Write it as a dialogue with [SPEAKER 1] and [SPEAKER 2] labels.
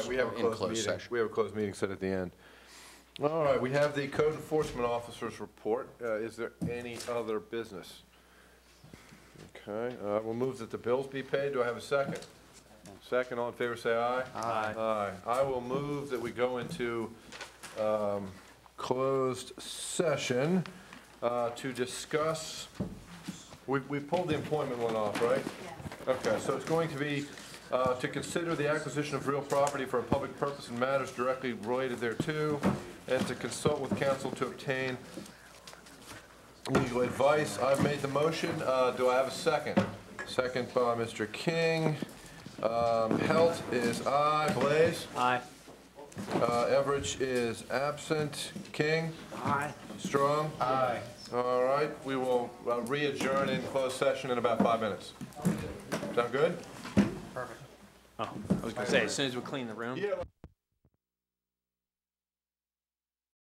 [SPEAKER 1] We have a
[SPEAKER 2] in
[SPEAKER 1] closed
[SPEAKER 2] closed
[SPEAKER 1] meeting.
[SPEAKER 2] session.
[SPEAKER 1] We have a closed meeting set at the end. All right, we have the code enforcement officer's report. Uh, Is there any other business? Okay, uh, we'll move that the bills be paid. Do I have a second? Second, all in favor, say aye.
[SPEAKER 2] Aye.
[SPEAKER 1] Aye. I will move that we go into um, closed session uh, to discuss, we we pulled the employment one off, right? Okay, so it's going to be uh, to consider the acquisition of real property for a public purpose and matters directly related thereto, and to consult with counsel to obtain legal advice. I've made the motion. Uh, Do I have a second? Second by Mr. King. Um, Helt is aye. Blaze?
[SPEAKER 3] Aye.
[SPEAKER 1] Uh, Everidge is absent. King?
[SPEAKER 3] Aye.
[SPEAKER 1] Strong? Aye. All right, we will uh, re-adjourn in closed session in about five minutes. Sound good?
[SPEAKER 3] Oh, I was gonna say, as soon as we clean the room.